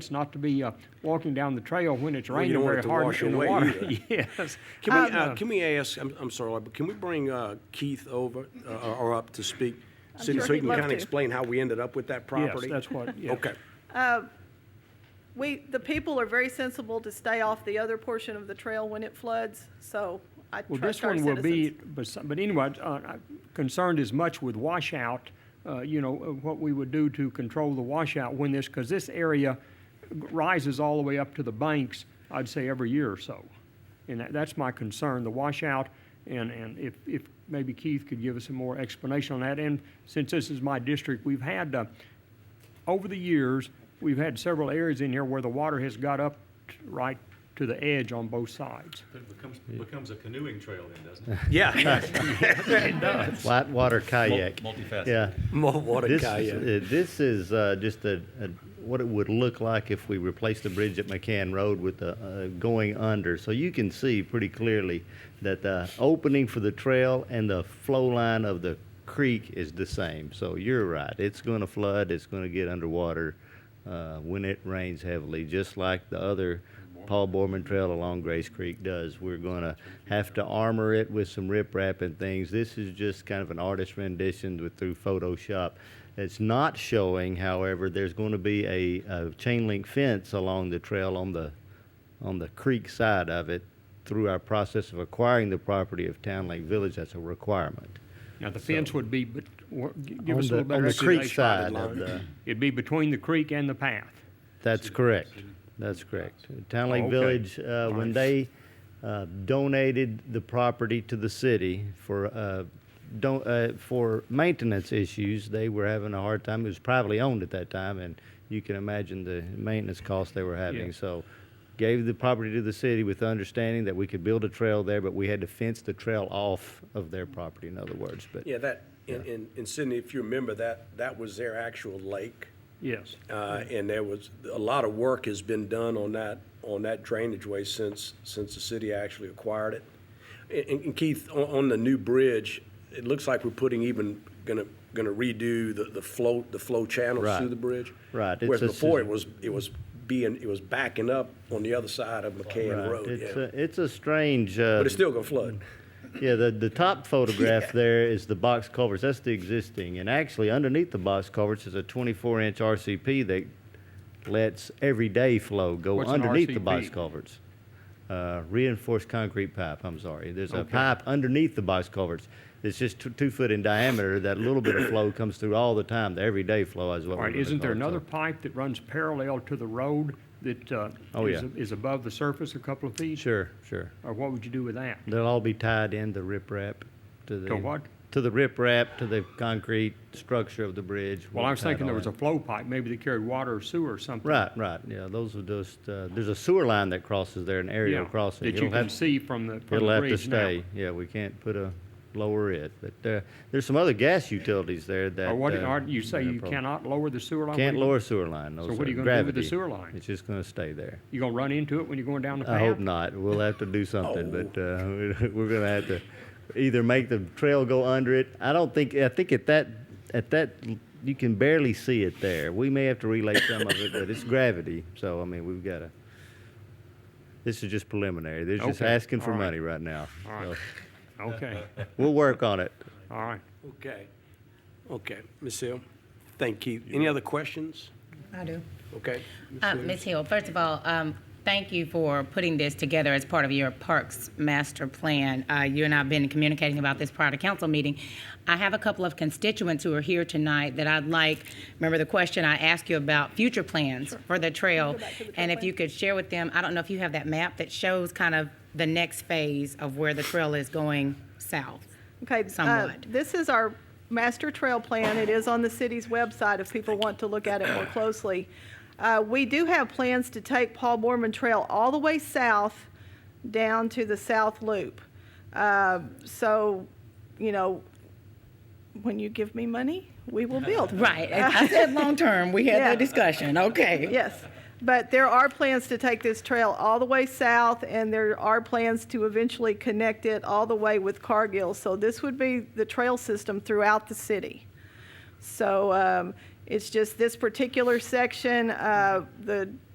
sense not to be uh, walking down the trail when it's Well, raining you don't want very it to hard wash in the away water. either. Yes. Can we, I- uh, can we ask, I'm, I'm sorry, but can we bring uh, Keith over uh, or or up to speak? So sure so he he'd can love kind of to. explain how we ended up with that property? that's what- yes. Okay. We, the people are very sensible to stay off the other portion of the trail when it floods, so I Well, this trust our one will be, citizens. but some- but anyway, uh, I'm concerned as much with washout, uh, you know, uh, what we would do to control the washout when this, because this area rises all the way up to the banks, I'd say every year or so. And that- that's my concern, the washout, and, and if, if maybe Keith could give us some more explanation on that. And since this is my district, we've had, uh, over the years, we've had several areas in here where the water has got up t- right to the edge on both sides. It becomes, becomes a canoeing trail then, doesn't it? Yeah. Flat water kayak. multifaceted. Yeah. More water This, kayak. uh, this is uh, just a, a, what it would look like if we replaced the bridge at McCann Road with the uh, going under. So you can see pretty clearly that the opening for the trail and the flow line of the creek is the same. So you're right. It's going to flood. It's going to get underwater uh, when it rains heavily, just like the other Paul Borman Trail along Grace Creek does. We're going to have to armor it with some riprap and things. This is just kind of an artist rendition with through Photoshop. It's not showing, however, there's going to be a, a chain link fence along the trail on the on the creek side of it. Through our process of acquiring the property of Town Lake Village, that's a requirement. Now, the fence would be, but, or, g- give On us a the- little better on the explanation. creek side of the. It'd be between the creek and the path. That's correct. That's correct. Town Lake Oh, Okay. Village, uh, when Nice. they uh, donated the property to the city for, uh, don't, uh, for maintenance issues, they were having a hard time. It was privately owned at that time, and you can imagine the maintenance costs they were having. So gave the property to the city with the understanding that we could build a trail there, but we had to fence the trail off of their property, in other words, but. Yeah, that, in- in, in Sydney, if you remember, that, that was their actual lake. Yes. Uh, And there was, a lot of work has been done on that, on that drainage way since, since the city actually acquired it. And- And Keith, on, on the new bridge, it looks like we're putting even, gonna, gonna redo the, the flow, the flow channels through Right. the bridge. Right. It's Whereas a- before, it was, it was being, it was backing up on the other side of McCann Right. Road, It's yeah. a, it's a strange. uh, But it's still gonna flood. Yeah, the, the top photograph there is the box culverts. That's the existing. And actually, underneath the box culverts is a 24 inch RCP that lets everyday flow go What's an underneath the box RCP? culverts. Uh, reinforced concrete pipe, I'm sorry. There's a pipe underneath the box culverts. It's just two, two foot in diameter. That little bit of flow comes through all the time. The everyday flow is what All we're right, gonna isn't there call it. So another pipe that runs parallel to the road that uh, Oh, is yeah. is above the surface a couple of feet? Sure, sure. Or what would you do with that? They'll all be tied in the riprap to the. To what? To the riprap, to the concrete structure of the bridge. Well, I was We'll tie it thinking there all was a in. flow pipe, maybe that carried water or sewer or something. Right, right, yeah, those are just, uh, there's a sewer line that crosses there, an aerial Yeah, crossing. that you It'll can have- see from the, from It'll the have to bridge now. stay, yeah, we can't put a, lower it, but, uh, there's some other gas utilities there that. Or what, uh, or you say that are you pro- cannot lower the sewer line? Can't What are you- lower sewer line, no, So what are sir. you gonna do with the Gravity. sewer line? It's just gonna stay there. You gonna run into it when you're going down the path? I hope not. We'll have to do something, Oh. but uh, we're going to have to either make the trail go under it. I don't think. I think at that at that you can barely see it there. We may have to relay some of it, but it's gravity. So I mean, we've got to. This is just preliminary. They're just Okay. asking for All right. money right now. right. Okay, So we'll work on it. all right. Okay, okay, Ms. Hill, thank Keith. Any other questions? I do. Okay. Uh, Ms. Hill, first of all, um, thank you for putting this together as part of your Parks Master Plan. Uh, you and I have been communicating about this prior to council meeting. I have a couple of constituents who are here tonight that I'd like, remember the question I asked you about future plans for the trail? And if you could share with them, I don't know if you have that map that shows kind of the next phase of where the trail is going south. Okay, uh, somewhat. this is our master trail plan. It is on the city's website if people want to look at it more closely. Uh, We do have plans to take Paul Borman Trail all the way south down to the south loop. Uh, So, you know, when you give me money, we will build. Right, I said long-term, we had Yeah. that discussion, okay. Yes, but there are plans to take this trail all the way south, and there are plans to eventually connect it all the way with Cargill. So this would be the trail system throughout the city. So um, It's just this particular section, uh, the